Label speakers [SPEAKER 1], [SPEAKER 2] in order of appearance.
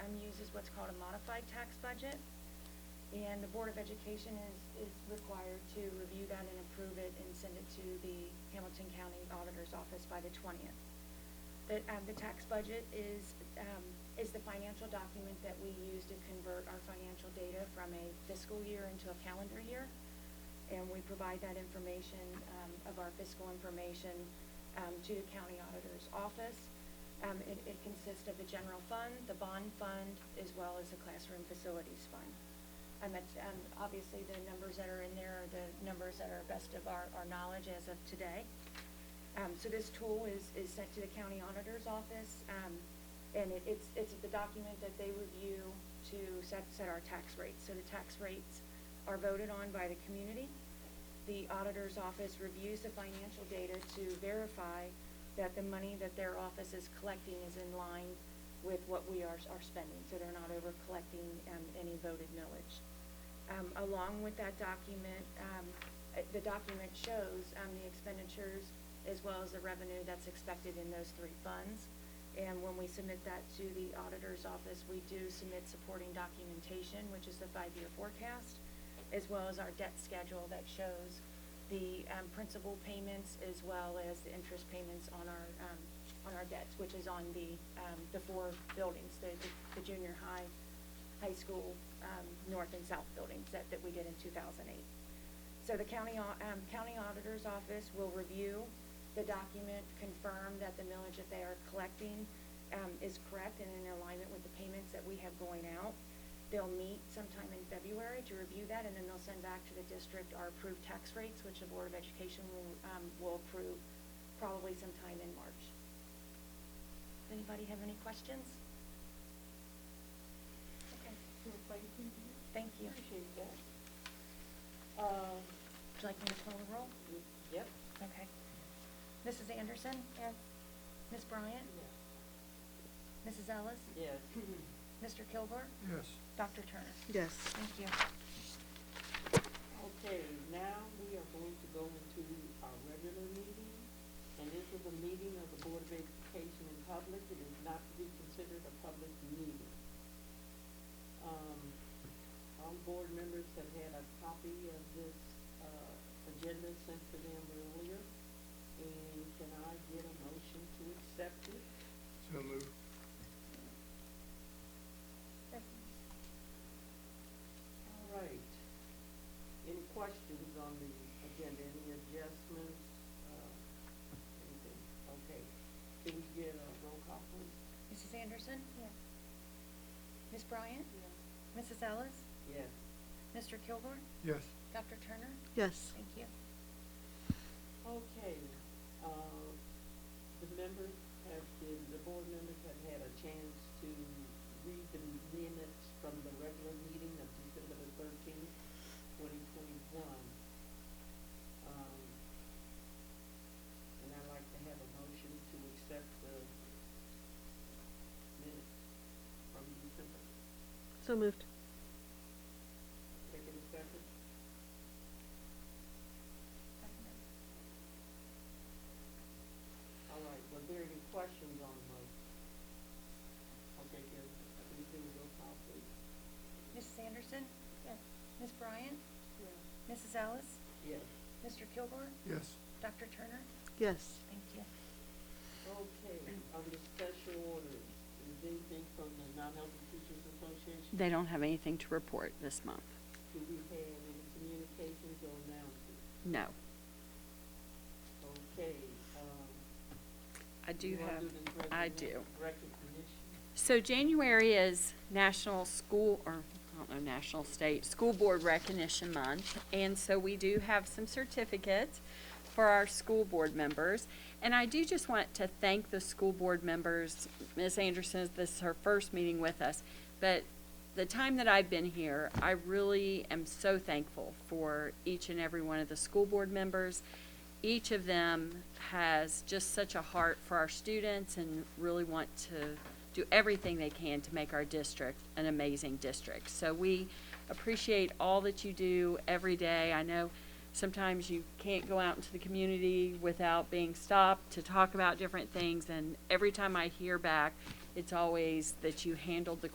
[SPEAKER 1] what's called a modified tax budget. And the Board of Education is, is required to review that and approve it and send it to the Hamilton County Auditor's Office by the twentieth. The, um, the tax budget is, um, is the financial document that we use to convert our financial data from a fiscal year into a calendar year. And we provide that information, um, of our fiscal information, um, to the county auditor's office. Um, it, it consists of the general fund, the bond fund, as well as the classroom facilities fund. And that's, um, obviously, the numbers that are in there are the numbers that are best of our, our knowledge as of today. Um, so this tool is, is sent to the county auditor's office, um, and it, it's, it's the document that they review to set, set our tax rates. So the tax rates are voted on by the community. The auditor's office reviews the financial data to verify that the money that their office is collecting is in line with what we are, are spending, so they're not over collecting, um, any voted millage. Um, along with that document, um, uh, the document shows, um, the expenditures as well as the revenue that's expected in those three funds. And when we submit that to the auditor's office, we do submit supporting documentation, which is the five-year forecast, as well as our debt schedule that shows the, um, principal payments as well as the interest payments on our, um, on our debts, which is on the, um, the four buildings, the, the- the junior high, high school, um, north and south buildings that, that we did in two thousand eight. So the county, au- um, county auditor's office will review the document, confirm that the millage that they are collecting, um, is correct and in alignment with the payments that we have going out. They'll meet sometime in February to review that, and then they'll send back to the district our approved tax rates, which the Board of Education will, um, will approve probably sometime in March. Does anybody have any questions? Okay,
[SPEAKER 2] Well, Thank you.
[SPEAKER 1] thank you.
[SPEAKER 2] Appreciate that. Uh,
[SPEAKER 1] Would you like me to call the roll?
[SPEAKER 2] yep.
[SPEAKER 1] Okay. Mrs. Anderson? Yes. Ms. Bryant? Mrs. Ellis?
[SPEAKER 2] Yes.
[SPEAKER 1] Mr. Kilgore?
[SPEAKER 3] Yes.
[SPEAKER 1] Dr. Turner?
[SPEAKER 4] Yes.
[SPEAKER 1] Thank you.
[SPEAKER 2] Okay, now we are going to go into our regular meeting, and this is a meeting of the Board of Education in public. It is not to be considered a public meeting. Um, all board members have had a copy of this, uh, agenda sent to them earlier, and can I get a motion to accept it?
[SPEAKER 3] So moved.
[SPEAKER 2] All right. Any questions on the agenda, any adjustments, uh, anything? Okay. Can we get a roll call, please?
[SPEAKER 1] Mrs. Anderson? Yes. Ms. Bryant?
[SPEAKER 2] Yes.
[SPEAKER 1] Mrs. Ellis?
[SPEAKER 2] Yes.
[SPEAKER 1] Mr. Kilgore?
[SPEAKER 3] Yes.
[SPEAKER 1] Dr. Turner?
[SPEAKER 4] Yes.
[SPEAKER 1] Thank you.
[SPEAKER 2] Okay, uh, the members have been, the board members have had a chance to read the minutes from the regular meeting of December the thirteenth, twenty twenty-one. Um, and I'd like to have a motion to accept the minutes from December.
[SPEAKER 4] So moved.
[SPEAKER 2] Take a second. All right, were there any questions on the motion? Okay, good. I think we will call, please.
[SPEAKER 1] Mrs. Anderson? Yes. Ms. Bryant?
[SPEAKER 2] Yes.
[SPEAKER 1] Mrs. Ellis?
[SPEAKER 2] Yes.
[SPEAKER 1] Mr. Kilgore?
[SPEAKER 3] Yes.
[SPEAKER 1] Dr. Turner?
[SPEAKER 4] Yes.
[SPEAKER 1] Thank you.
[SPEAKER 2] Okay, on the special orders, is anything from the non-healthy teachers association?
[SPEAKER 5] They don't have anything to report this month.
[SPEAKER 2] Do we have any communications or announcements?
[SPEAKER 5] No.
[SPEAKER 2] Okay, um.
[SPEAKER 5] I do
[SPEAKER 2] you wanna
[SPEAKER 5] have,
[SPEAKER 2] this recogni-
[SPEAKER 5] I do.
[SPEAKER 2] Recognition?
[SPEAKER 5] So January is National School, or, I don't know, National State School Board Recognition Month. And so we do have some certificates for our school board members. And I do just want to thank the school board members. Ms. Anderson, this is her first meeting with us. But the time that I've been here, I really am so thankful for each and every one of the school board members. Each of them has just such a heart for our students and really want to do everything they can to make our district an amazing district. So we appreciate all that you do every day. I know sometimes you can't go out into the community without being stopped to talk about different things. And every time I hear back, it's always that you handled the